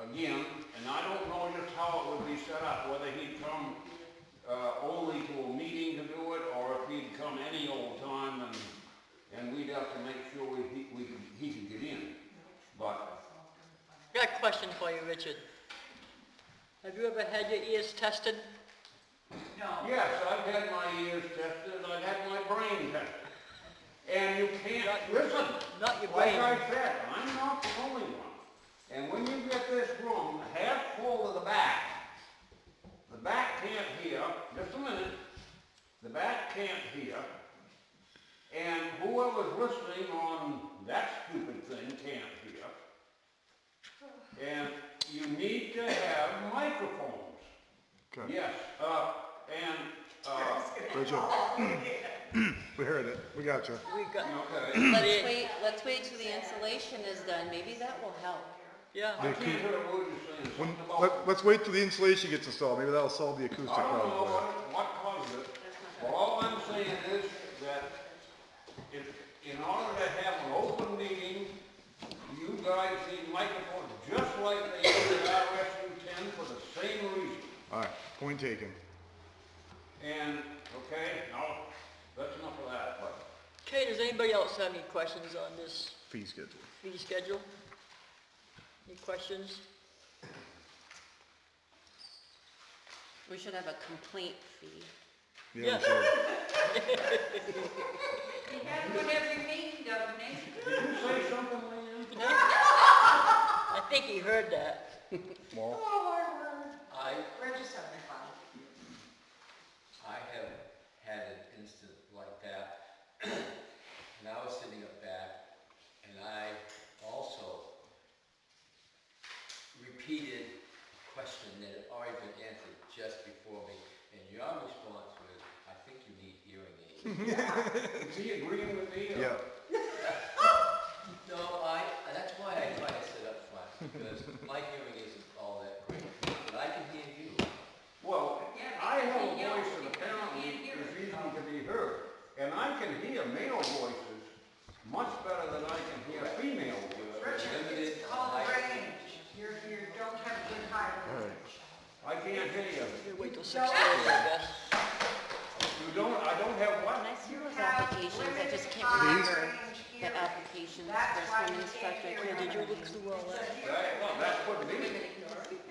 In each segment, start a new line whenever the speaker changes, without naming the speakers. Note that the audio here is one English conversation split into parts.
again, and I don't know just how it would be set up, whether he'd come, uh, only to a meeting to do it, or if he'd come any old time, and, and we'd have to make sure we, he- we, he could get in. But,
Got a question for you, Richard. Have you ever had your ears tested?
No,
yes, I've had my ears tested, I've had my brain tested, and you can't listen.
Not your
Like
brain.
I said, I'm not the only one. And when you get this room half full to the back, the back can't hear, just a minute, the back can't hear, and whoever's listening on that stupid thing can't hear. And you need to have microphones.
Okay.
Yes, uh, and, uh,
Rachel. We heard it. We got you.
We got,
okay.
let
Let's
it,
wait, let's wait till the insulation is done, maybe that will help.
I
yeah.
can't hear a word you're saying.
When,
Something about-
let, let's wait till the insulation gets installed. Maybe that'll solve the acoustic
I don't know
problem.
what, what caused it, but all I'm saying is that in, in order to have an open meeting, you guys need microphones just like they do in RSU ten for the same reason.
All right, point taken.
And, okay, now, that's enough of that, but.
Okay, does anybody else have any questions on this
Fee schedule.
fee schedule? Any questions?
We should have a complaint fee.
Yeah,
Yeah.
we should.
you have one every meeting, don't you?
Did you say something, Leanne?
I think he heard that.
Well,
I,
We're just having fun.
I have had an incident like that. And I was sitting up back and I also repeated a question that had already been answered just before me. And your response was, I think you need hearing aids.
Is he agreeing with me? or-
yeah.
No, I, that's why I try to sit up front because my hearing isn't all that great. But I can hear you.
Well,
Yeah,
I have a
he yells
voice that
because he can't
apparently
hear
is
it.
easy to be heard, and I can hear male voices much better than I can hear female voices.
Richard, it's called
Limited
range. You're, you don't have good high range.
I can't hear you.
We'll wait till six thirty, I guess.
You don't, I don't have
When
what?
I see those
You have
applications, I just can't
limited
remember
high-range
the
hearing.
applications, the
That's
first
why
one
you
was
can't
such, I
hear
can't
Did you
remember.
look through all that?
That, well, that could be,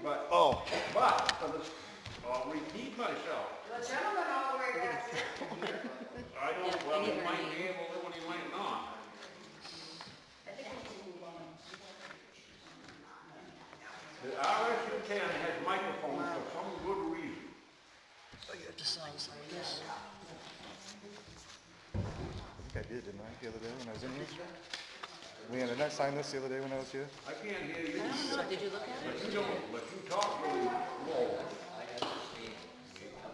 but,
Oh,
but, for the, I'll repeat myself.
The gentleman all the way back there can hear.
I don't,
Yeah,
well, he
neither
might
me.
be able to, and he might not.
I think we can move on.
The RSU ten has microphones for some good reason.
Oh, you have to sign some of this.
I think I did, didn't I, the other day when I was in here? Leanne, didn't I sign this the other day when I was here?
I can't hear you,
So did you look at it?
but you don't, but you talk really low.
I understand where you're coming from.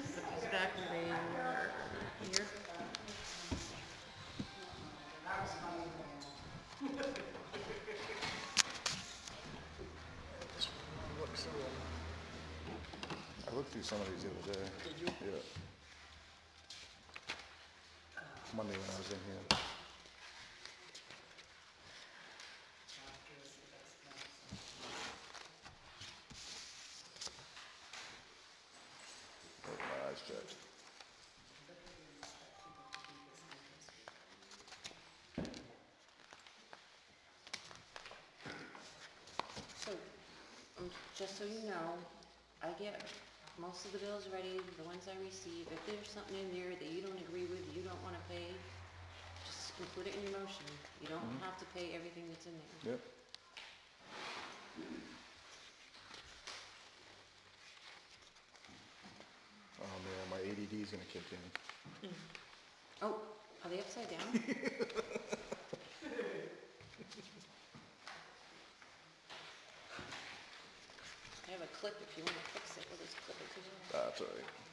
It's back there. Here.
That was funny.
Look through it.
I looked through some of these the other day.
Did you?
Yeah. Monday when I was in here. Got my eyes checked.
So, um, just so you know, I get most of the bills ready, the ones I receive. If there's something in there that you don't agree with, you don't wanna pay, just include it in your motion. You don't have to pay everything that's in there.
Yep. Oh man, my ADD is gonna kick in.
Oh, are they upside down? I have a clip if you wanna fix it, we'll just clip it to you.
That's all right.